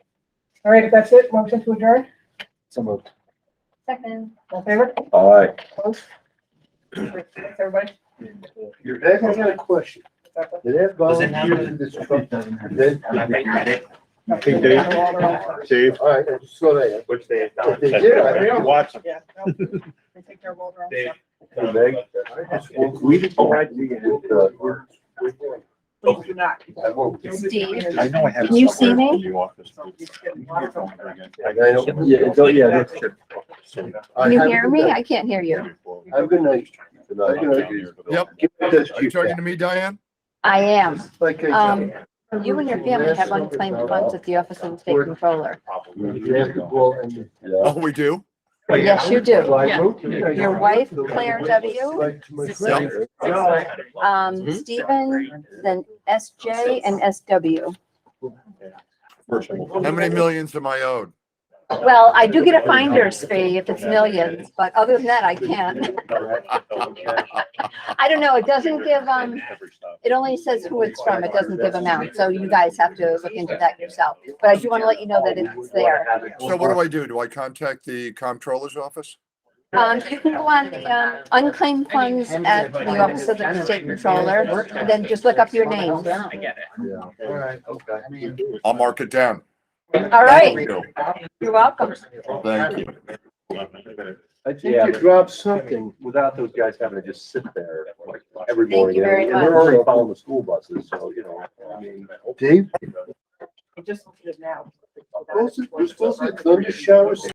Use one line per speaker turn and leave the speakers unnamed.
All right, if that's it, motion to adjourn,
So moved.
Second.
all in favor,
Aye.
opposed? Thanks, everybody.
Dave, I got a question. Did that
Does it
volunteer in this truck? Did
Big
Dave.
they? All right, I saw that.
Which they have
If they did, I think I'm
watching.
Yeah. no, They take care of all their own stuff.
I just-
We didn't.
uh,
Please do not.
Steve.
I know I have.
Can you see me?
So you just get lots of-
I know.
Yeah, it's- oh, yeah, that's true.
All
Can
right,
you
have a
hear
good
me?
night.
I can't hear you.
Have a good night. Good night.
Yep.
Give me this,
Are you
Chief.
talking to me, Oh, Diane?
I am.
Like I
Um,
said,
You and your family have unclaimed funds at the Office of the State Controller.
basketball and-
Oh, we do?
Yes, you do.
Well, I wrote to you.
Your wife, Claire W.,
Like to my
sister-
friend.
Um, Stephen, then SJ and SW.
How many millions am I owed?
Well, I do get a finder's fee if it's millions, but other than that, I can't. I don't know. It doesn't give, um, it only says who it's from. It doesn't give amount. So you guys have to look into that yourself. But I do want to let you know that it's there.
So what do I do? Do I contact the comptroller's office?
Um, you can go on the, um, unclaimed funds at the Office of the State Controller, and then just look up your name. All
get it.
Yeah.
All right, okay.
I'll mark it down.
right, you're welcome.
Thank you.
I think
Did you
you
drop
something
something?
without those guys having to just sit there like every
Thank
morning.
you very
And they're
much.
already following the school buses, so, you know, I mean.
Dave,
It just, it now.
was it, was it thunder shower?